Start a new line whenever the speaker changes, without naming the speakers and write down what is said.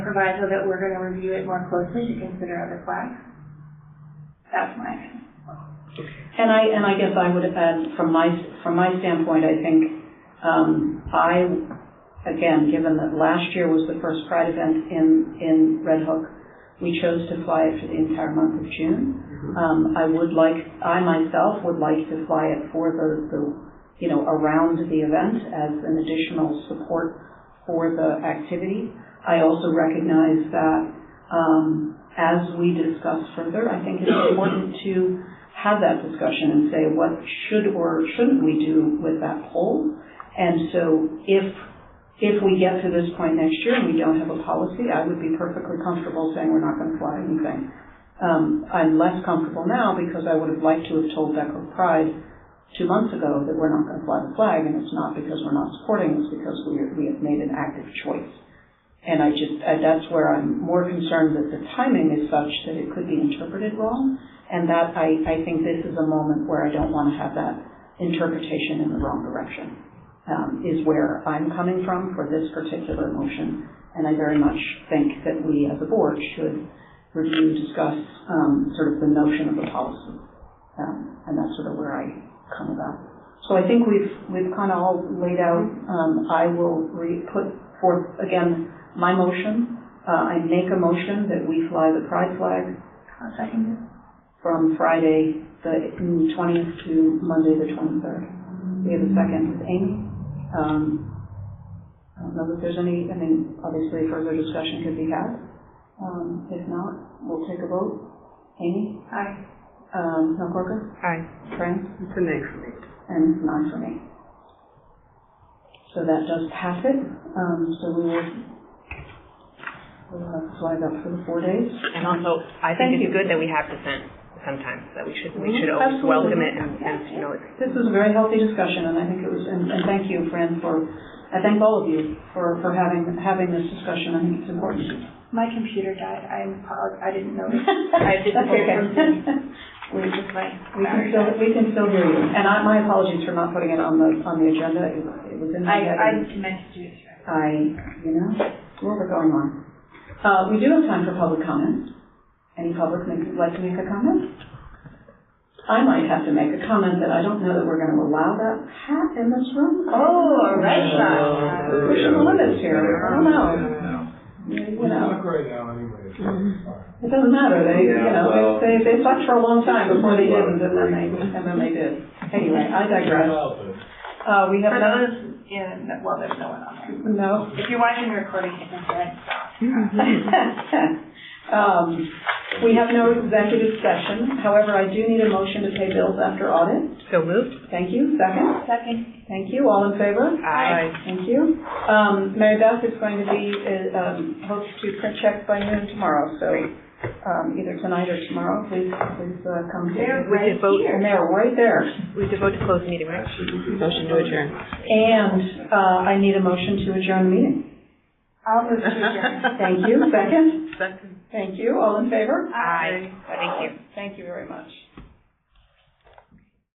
proviso that we're gonna review it more closely to consider other flags. That's my opinion.
And I, and I guess I would have had, from my, from my standpoint, I think, um, I, again, given that last year was the first Pride event in, in Red Hook, we chose to fly it for the entire month of June. Um, I would like, I myself would like to fly it for the, the, you know, around the event as an additional support for the activity. I also recognize that, um, as we discuss further, I think it's important to have that discussion and say what should or shouldn't we do with that poll. And so if, if we get to this point next year and we don't have a policy, I would be perfectly comfortable saying we're not going to fly anything. Um, I'm less comfortable now because I would have liked to have told Deco Pride two months ago that we're not going to fly the flag and it's not because we're not supporting, it's because we, are- we have made an active choice. And I just, uh, that's where I'm more concerned that the timing is such that it could be interpreted wrong. And that, I, I think this is a moment where I don't want to have that interpretation in the wrong direction, um, is where I'm coming from for this particular motion. And I very much think that we as a board should review, discuss, um, sort of the notion of the policy. Um, and that's sort of where I come about. So I think we've, we've kind of all laid out, um, I will re, put forth again my motion. Uh, I make a motion that we fly the pride flag
I'll second it.
from Friday, the twentieth to Monday, the twenty-third. We have a second with Amy. Um, I don't know if there's any, I mean, obviously further discussion could be had. Um, if not, we'll take a vote. Amy,
Aye.
um, Mel Corker,
Aye.
Fran,
It's a nay for me.
and nine for me. So that does pass it. Um, so we will, we'll have flag up for the four days.
And also, I
Thank
think
you.
it's good that we have dissent sometimes, that we should, we
Mhm.
should always
Absolutely.
welcome it and, and, you know, it's.
This was a very healthy discussion, and I think it was, and, and thank you, Fran, for, I thank all of you for, for having, having this discussion, I think it's important.
My computer died, I apologize, I didn't notice.
I
didn't hear
We
It's just my
we can
battery
still,
died.
we can still hear you, and I, my apologies for not putting it on the, on the agenda, it was- it was in my
I,
head.
I meant to do this right.
I, you know, what we're going on. Uh, we do have time for public comment. Any public make, like to make a comment? I might have to make a comment that I don't know that we're gonna allow that hat in Uh, this room.
Oh, a red
shot.
We're pushing the limits here, I don't know,
No.
you
We
know,
suck right now anyway. so it's fine.
it doesn't matter, they, you
Yeah,
know,
well-
they, they they sucked for a long time before they didn't, and then they, and then they did. Anyway, I digress.
Well, but
Uh, we have
For
none,
those, yeah, no- well, there's no one on there.
no,
If you're watching the recording, hit the red
Um, We have no executive session, however, I do need a motion to pay bills after audit.
So moved?
Thank you, second.
Second.
Thank you, all in favor?
Aye.
Thank you. Um, Mary Beth is going to be, uh, um, hopes to print checks by noon tomorrow, so um, either tonight or tomorrow, please, please uh, come
They're
here.
We
right
could vote.
here.
And they're right there.
We could vote to close the meeting, right?
Actually, we could-
Motion to adjourn.
And uh, I need a motion to adjourn the meeting.
I'll move to adjourn.
Thank you, second.
Second.
Thank you, all in favor?
Aye. Thank you.
Thank you very much.